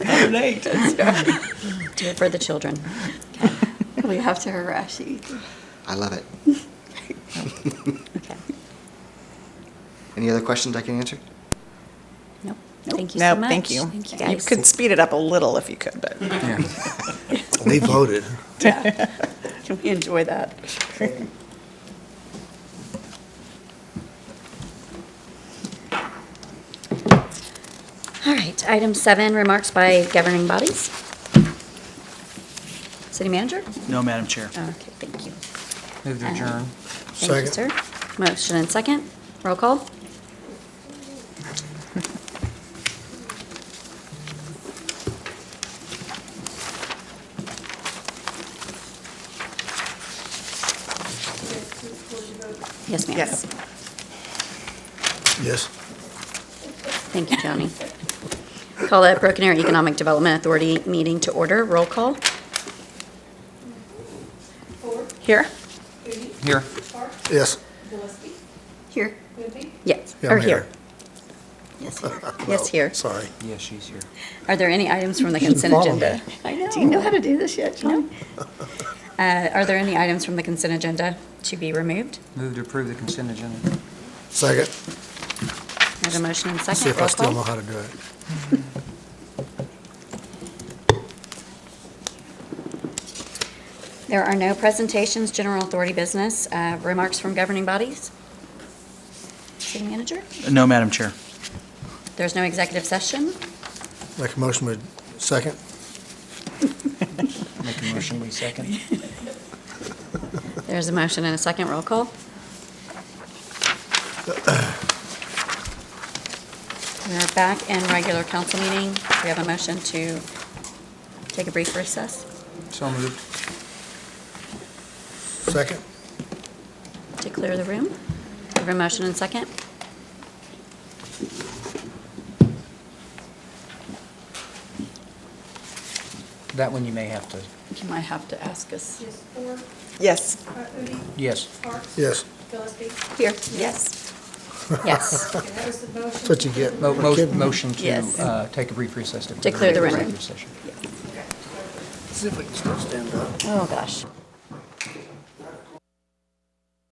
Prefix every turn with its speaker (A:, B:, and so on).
A: I'm late.
B: Do it for the children.
C: We have to harass you.
D: I love it.
B: Okay.
D: Any other questions I can answer?
B: Nope. Thank you
A: No,
B: so much.
A: thank you.
B: Thank you guys.
A: could speed it up a little if you could, but
E: They voted.
C: Can we enjoy that?
B: All right, item seven, remarks by governing bodies. City manager?
F: No, Madam Chair.
B: Okay, thank you. Uh,
G: Move to adjourn.
B: Thank you, sir.
E: Second.
B: Motion and second. Roll call? Yes, ma'am.
A: yes.
E: Yes.
B: Thank you, Joni. Call that Broken Arrow Economic Development Authority meeting to order. Roll call?
A: Here?
G: Here.
E: Yes.
C: Here.
B: Yes,
E: Yeah,
B: or
E: I'm
B: here. Yes, here. Yes, here.
E: Sorry.
G: Yeah, she's here.
B: Are there any items from the
E: You should
B: consent
E: follow
B: agenda? I know.
C: Do you know how to do this yet, John?
B: Uh, Are there any items from the consent agenda to be removed?
G: Move to approve the consent agenda.
E: Second.
B: There's a motion and
E: See
B: second.
E: if I
B: Roll
E: still know
B: call.
E: how to do it.
B: There are no presentations, general authority business, uh, remarks from governing bodies. City manager?
F: No, Madam Chair.
B: There's no executive session.
E: Make a motion with second.
G: Make a motion, we second.
B: There's a motion and a second. Roll call. We're back in regular council meeting. We have a motion to take a brief recess.
G: So moved.
E: Second.
B: to clear the room. Have a motion and second.
G: That one you may have to,
C: You might have to ask us.
H: Is Ford,
A: Yes.
H: uh, Udi,
G: yes.
H: Parks,
E: Yes.
H: Gillespie.
C: Here. Yes.
B: Yes,
H: Okay, that was the motion.
E: That's what you get.
G: Mo-
E: for
G: mo-
E: kidding.
G: Motion to
C: Yes.
G: uh, take a brief recess.
B: To clear the room.
G: Executive session.
E: See if I can still stand up.
B: oh gosh.